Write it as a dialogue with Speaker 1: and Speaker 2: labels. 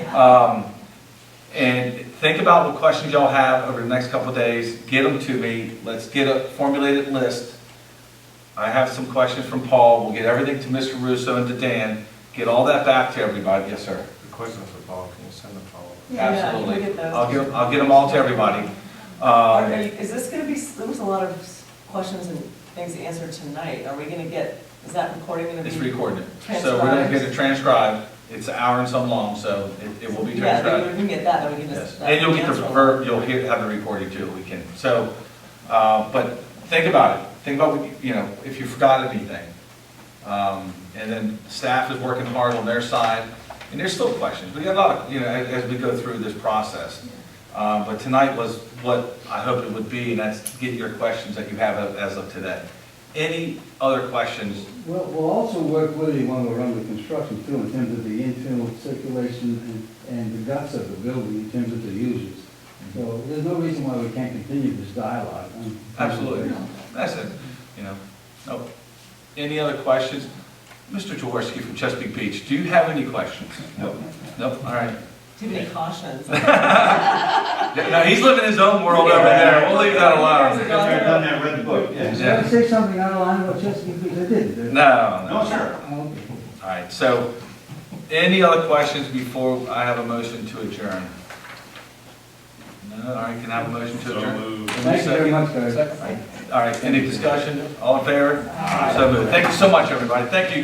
Speaker 1: Um, And think about what questions y'all have over the next couple of days, get them to me, let's get a formulated list. I have some questions from Paul, we'll get everything to Mr. Russo and to Dan, get all that back to everybody, yes, sir.
Speaker 2: The questions for Paul, can you send them follow-up?
Speaker 3: Yeah, yeah, we'll
Speaker 1: Absolutely.
Speaker 3: get those.
Speaker 1: I'll give, I'll get them all to everybody.
Speaker 3: Are
Speaker 1: Um,
Speaker 3: you- Is this gonna be, there was a lot of questions and things answered tonight. Are we gonna get, is that recording gonna be?
Speaker 1: It's recorded, so we're gonna get it transcribed, it's an hour and some long, so it, it will be
Speaker 3: Yeah,
Speaker 1: transcribed.
Speaker 3: then we can get that, then we can
Speaker 1: Yes,
Speaker 3: just.
Speaker 1: and you'll get the
Speaker 3: answer them.
Speaker 1: verb, you'll hear, have the recording too, we can, so, uh, but think about it, think about, what you- you know, if you forgot anything. Um, and then staff is working hard on their side, and there's still questions, we got a lot of, you know, as, as we go through this process. Uh, but tonight was what I hoped it would be, and that's get your questions that you have of- as of today. Any other questions?
Speaker 4: Well, we'll also work with you when we're under construction too, in terms of the internal circulation and, and the guts of the building, in terms of the users. So there's no reason why we can't continue this dialogue. Um, I'm-
Speaker 1: Absolutely. That's it, you know. Oh, Any other questions? Mr. Jaworski from Chesapeake Beach, do you have any questions? Nope. Nope, all right.
Speaker 3: Too many cautions.
Speaker 1: No, he's living his own world over there, we'll leave that alone.
Speaker 5: done that, read the book, yeah.
Speaker 4: Did I say something out of line about Chesapeake Beach? I did.
Speaker 1: No,
Speaker 4: didn't I?
Speaker 1: no.
Speaker 5: No, sir.
Speaker 4: Oh, okay.
Speaker 1: All right, so, any other questions before I have a motion to adjourn? No, all right, can I have a motion to adjourn?
Speaker 4: Thank you very much, guys.
Speaker 1: All right, any discussion? All in favor? So moved. Thank you so much, everybody. Thank you.